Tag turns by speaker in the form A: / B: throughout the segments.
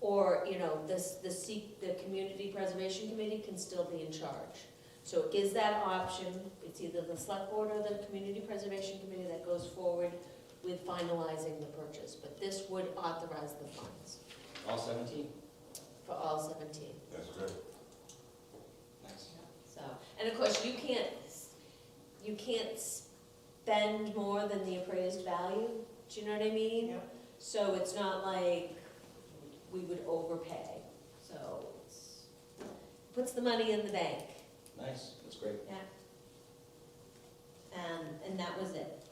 A: Or, you know, this, the seek, the community preservation committee can still be in charge. So it gives that option, it's either the select board or the community preservation committee that goes forward with finalizing the purchase, but this would authorize the funds
B: All seventeen?
A: for all seventeen.
C: That's good.
B: Nice.
A: So, and of course, you can't, you can't spend more than the appraised value, do you know what I mean?
D: Yeah.
A: So it's not like we would overpay, so it's, puts the money in the bank,
B: Nice, that's great.
A: um, and that was it.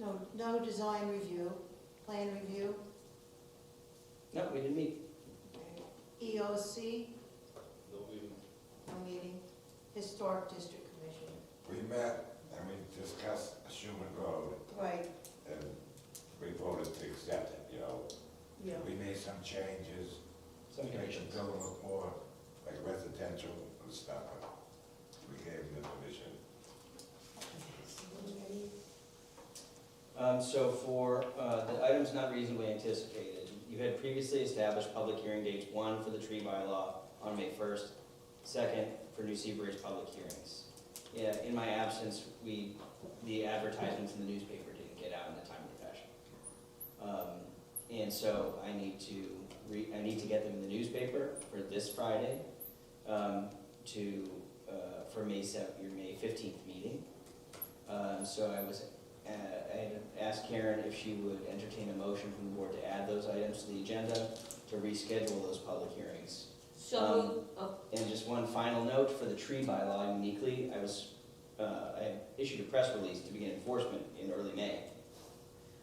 D: No, no design review, plan review,
B: No, we didn't meet.
D: EOC,
B: No, we didn't.
D: E no meeting, Historic District Commission.
C: We met and we discussed Schuman Road
D: Right,
C: and we voted to accept it, you know.
D: yeah.
C: We made some changes to
B: Some
C: make the
B: connections.
C: building look more like residential and stuff. We gave them the vision.
B: Um, so for, uh, the items not reasonably anticipated, you had previously established public hearing dates, one for the tree bylaw on May first, second for New Seabury's public hearings. Yeah, in my absence, we, the advertisements in the newspaper didn't get out in a timely fashion. Um, and so I need to re, I need to get them in the newspaper for this Friday, um, to, uh, for May seventh, your May fifteenth meeting. Um, so I was uh, I asked Karen if she would entertain a motion from the board to add those items to the agenda, to reschedule those public hearings.
A: So, oh,
B: And just one final note for the tree bylaw uniquely, I was, uh, I issued a press release to begin enforcement in early May.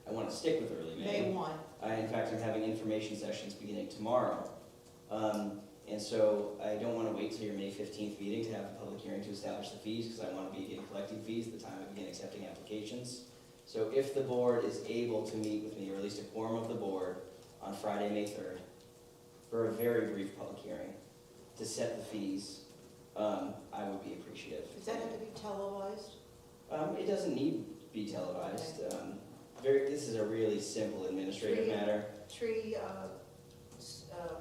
B: I want to stick with early
D: May one,
B: I, in fact, am having information sessions beginning tomorrow. Um, and so I don't wanna wait till your May fifteenth meeting to have a public hearing to establish the fees, because I wanna begin collecting fees at the time I begin accepting applications. So if the board is able to meet with me, or at least a quorum of the board, on Friday, May third, for a very brief public hearing, to set the fees, um, I would be appreciative.
D: is that going to be televised?
B: Um, it doesn't need to be televised, um, very, this is a really simple administrative
D: Tree-
B: matter.
D: Tree, uh, s- uh,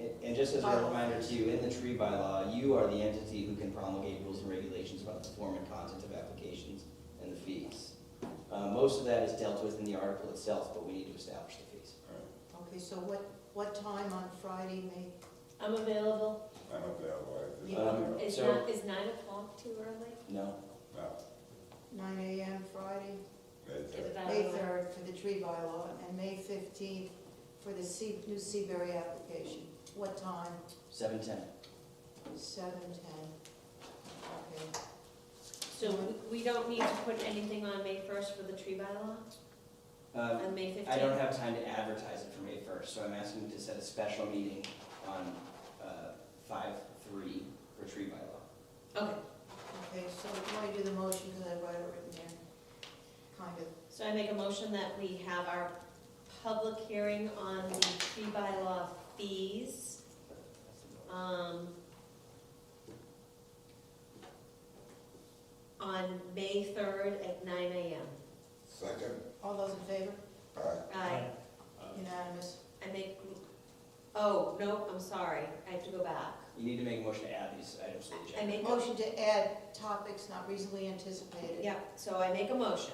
B: And and just as a
D: Bylaw.
B: reminder to you, in the tree bylaw, you are the entity who can promulgate rules and regulations about the form and content of applications and the fees. Uh, most of that is dealt with in the article itself, but we need to establish the fees.
D: okay, so what, what time on Friday, May?
A: I'm available,
C: I'm available. at this
D: Yeah.
C: time.
B: Um,
A: is
B: So-
A: nine, is nine o'clock too early?
B: No?
C: No,
D: Nine AM Friday,
C: that's
A: Is
C: it.
A: that-
D: May third for the tree bylaw, and May fifteenth for the Sea, new Seabury application. What time?
B: Seven ten.
D: Seven ten. Okay.
A: So we, we don't need to put anything on May first for the tree bylaw,
B: Uh,
A: on May fifteenth?
B: I don't have time to advertise it for May first, so I'm asking you to set a special meeting on, uh, five three for tree bylaw.
A: Okay,
D: Okay, so why do the motion, because I wrote it written there, kind of.
A: So I make a motion that we have our public hearing on the tree bylaw fees. um, On May third at nine AM.
C: Second,
D: All those in favor?
C: uh,
A: I,
D: Unanimous.
A: I make, oh, no, I'm sorry, I have to go back.
B: You need to make a motion to add these items to the agenda.
A: I make, a-
D: Motion to add topics not reasonably anticipated.
A: yeah, so I make a motion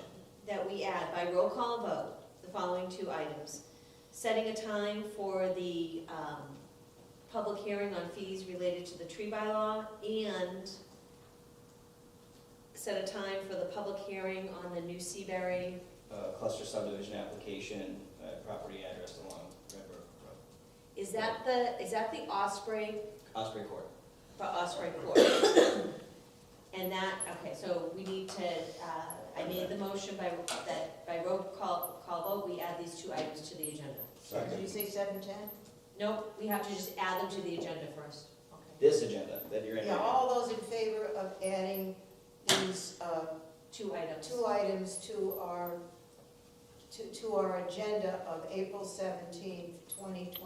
A: that we add by roll call vote the following two items. Setting a time for the, um, public hearing on fees related to the tree bylaw and set a time for the public hearing on the new Seabury.
B: uh, cluster subdivision application, uh, property address along Red Brook Road,
A: Is that the, is that the Osprey,
B: Osprey Court.
A: for Osprey Court? And that, okay, so we need to, uh, I made the motion by, that, by roll call, call vote, we add these two items to the agenda.
D: Did you
C: second,
D: say seven ten?
A: Nope, we have to just add them to the agenda first.
D: Okay.
B: This agenda that you're in
D: Yeah,
B: right
D: all those in favor of adding these, uh,
A: Two items.
D: two items to our, to, to our agenda of April seventeenth, twenty uh, twenty-two.